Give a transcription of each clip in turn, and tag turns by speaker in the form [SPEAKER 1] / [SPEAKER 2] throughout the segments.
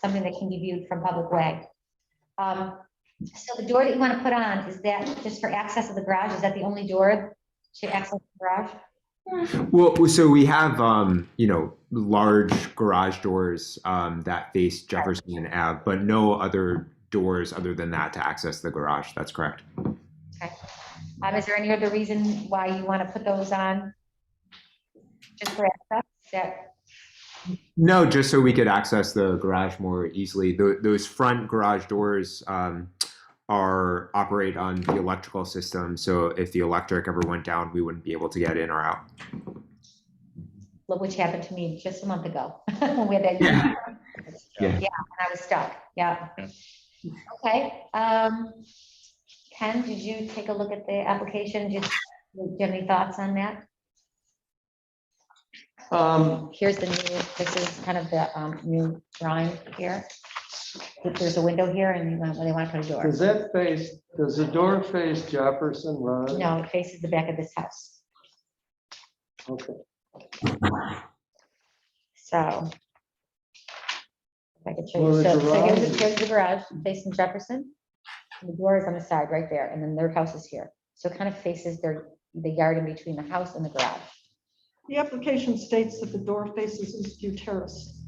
[SPEAKER 1] something that can be viewed from public way. Um, So the door that you want to put on, is that just for access to the garage? Is that the only door to access the garage?
[SPEAKER 2] Well, so we have, um, you know, large garage doors um, that face Jefferson Ave, but no other doors other than that to access the garage. That's correct.
[SPEAKER 1] Um, Is there any other reason why you want to put those on? Just for access? Is that
[SPEAKER 2] No, just so we could access the garage more easily. Tho- those front garage doors um, are operate on the electrical system, so if the electric ever went down, we wouldn't be able to get in or out.
[SPEAKER 1] look, which happened to me just a month ago. when we had that-
[SPEAKER 2] Yeah.
[SPEAKER 1] Yeah,
[SPEAKER 2] Yeah.
[SPEAKER 1] and I was stuck, yeah.
[SPEAKER 3] Yeah.
[SPEAKER 1] Okay, um, Ken, did you take a look at the application? Just, do you have any thoughts on that?
[SPEAKER 4] Um,
[SPEAKER 1] Here's the new, this is kind of the, um, new drawing here. If There's a window here and you want, well, they want to put a door.
[SPEAKER 4] does that face, does the door face Jefferson Road?
[SPEAKER 1] No, it faces the back of this house,
[SPEAKER 4] Okay.
[SPEAKER 1] so. If I could show
[SPEAKER 4] Well,
[SPEAKER 1] you,
[SPEAKER 4] the
[SPEAKER 1] so, so here's,
[SPEAKER 4] garage-
[SPEAKER 1] the- here's the garage facing Jefferson. and The door is on the side right there, and then their house is here, so it kind of faces their, the yard in between the house and the garage.
[SPEAKER 5] The application states that the door faces East View Terrace.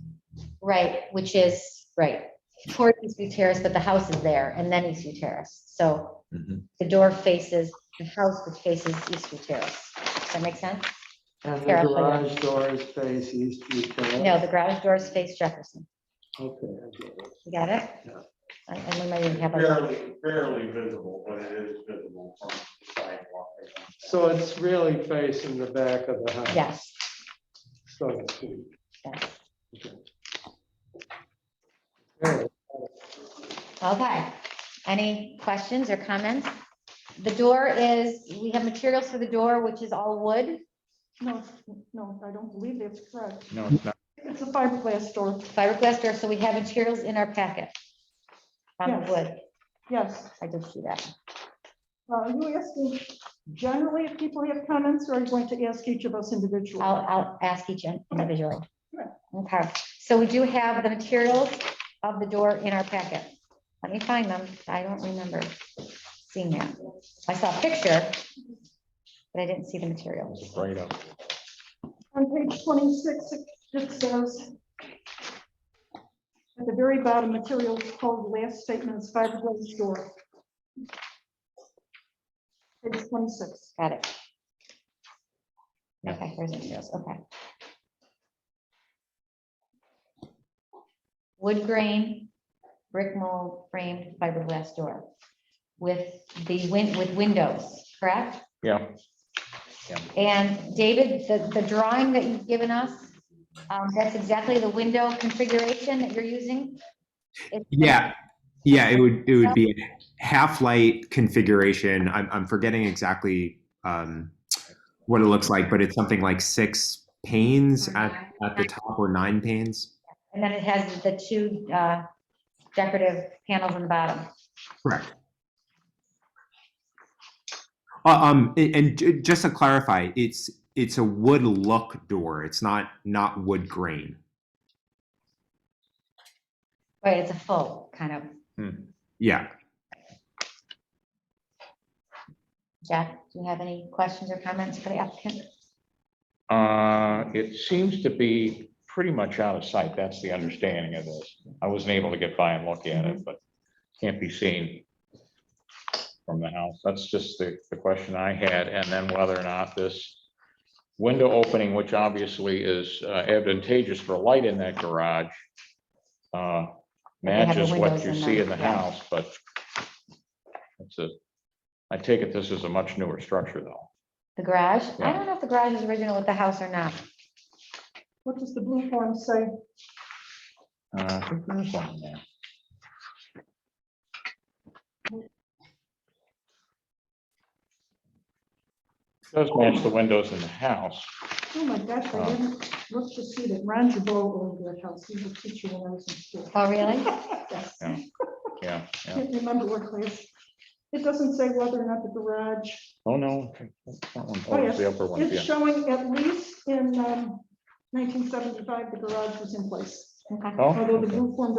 [SPEAKER 1] Right, which is, right, toward Eastview Terrace, but the house is there, and then Eastview Terrace, so the door faces, the house which faces Eastview Terrace. Does that make sense?
[SPEAKER 4] And the
[SPEAKER 1] Here, I'll put
[SPEAKER 4] garage doors face East View Terrace?
[SPEAKER 1] No, the garage doors face Jefferson,
[SPEAKER 4] Okay. I get it.
[SPEAKER 1] you got it?
[SPEAKER 4] Yeah.
[SPEAKER 1] I, I might even have a,
[SPEAKER 6] Barely, barely visible, but it is visible from the sidewalk. I think.
[SPEAKER 4] So it's really facing the back of the house?
[SPEAKER 1] yes,
[SPEAKER 4] So to speak.
[SPEAKER 1] yes.
[SPEAKER 4] All right.
[SPEAKER 1] Okay, any questions or comments? The door is, we have materials for the door, which is all wood,
[SPEAKER 5] No, no, I don't believe that's correct.
[SPEAKER 3] No, it's not.
[SPEAKER 5] It's a fiberglass door,
[SPEAKER 1] fiberglass door, so we have materials in our packet. From
[SPEAKER 5] Yes.
[SPEAKER 1] wood,
[SPEAKER 5] yes.
[SPEAKER 1] I did see that.
[SPEAKER 5] Uh, Are you asking generally if people have comments, or are you going to ask each of us individually?
[SPEAKER 1] I'll, I'll ask each in- individually.
[SPEAKER 5] Sure.
[SPEAKER 1] Okay, so we do have the materials of the door in our packet. Let me find them. I don't remember seeing that. I saw a picture, but I didn't see the materials.
[SPEAKER 3] Right up.
[SPEAKER 5] On page 26, it says, at the very bottom, materials called last statement is fiberglass door. Page 26.
[SPEAKER 1] Got it. Okay, here's the materials, okay. Wood grain, brick mold framed fiberglass door with the win, with windows, correct?
[SPEAKER 3] Yeah. Yeah.
[SPEAKER 1] And David, the, the drawing that you've given us, um, that's exactly the window configuration that you're using? It's-
[SPEAKER 2] Yeah, yeah, it would it would be a half light configuration. I'm I'm forgetting exactly um, what it looks like, but it's something like six panes at, at the top or nine panes.
[SPEAKER 1] And then it has the two, uh, decorative panels on the bottom.
[SPEAKER 2] Correct. Uh, Um, a- and ju- just to clarify, it's it's a wood look door. It's not not wood grain.
[SPEAKER 1] Right, it's a full kind of,
[SPEAKER 2] Yeah.
[SPEAKER 1] Jack, do you have any questions or comments for the applicant?
[SPEAKER 3] Uh, it seems to be pretty much out of sight. That's the understanding of this. I wasn't able to get by and look at
[SPEAKER 1] Mm-hmm.
[SPEAKER 3] it, but can't be seen from the house. That's just the, the question I had. And then whether or not this window opening, which obviously is uh, advantageous for light in that garage, uh,
[SPEAKER 1] They have the
[SPEAKER 3] matches what
[SPEAKER 1] windows
[SPEAKER 3] you
[SPEAKER 1] in
[SPEAKER 3] see
[SPEAKER 1] them,
[SPEAKER 3] in the
[SPEAKER 1] yeah.
[SPEAKER 3] house, but it's a, I take it this is a much newer structure though.
[SPEAKER 1] The garage? I
[SPEAKER 3] Yeah.
[SPEAKER 1] don't know if the garage is original with the house or not.
[SPEAKER 5] What does the blue form say?
[SPEAKER 3] Uh, I think there's one in there. Does match the windows in the house.
[SPEAKER 5] Oh my gosh, I didn't look to see that Ron Jabot owned that house. He was a teacher when I was in school.
[SPEAKER 1] Oh, really?
[SPEAKER 5] Yes.
[SPEAKER 3] Yeah, Yeah, yeah.
[SPEAKER 5] Can't remember what class. It doesn't say whether or not the garage,
[SPEAKER 3] Oh, no. okay, that one-
[SPEAKER 5] Oh,
[SPEAKER 3] Oh,
[SPEAKER 5] yes.
[SPEAKER 3] it's the upper one,
[SPEAKER 5] it's
[SPEAKER 3] yeah.
[SPEAKER 5] showing at least in um, 1975, the garage was in place.
[SPEAKER 1] Okay.
[SPEAKER 3] Oh,
[SPEAKER 5] Although the
[SPEAKER 3] okay.
[SPEAKER 5] blue form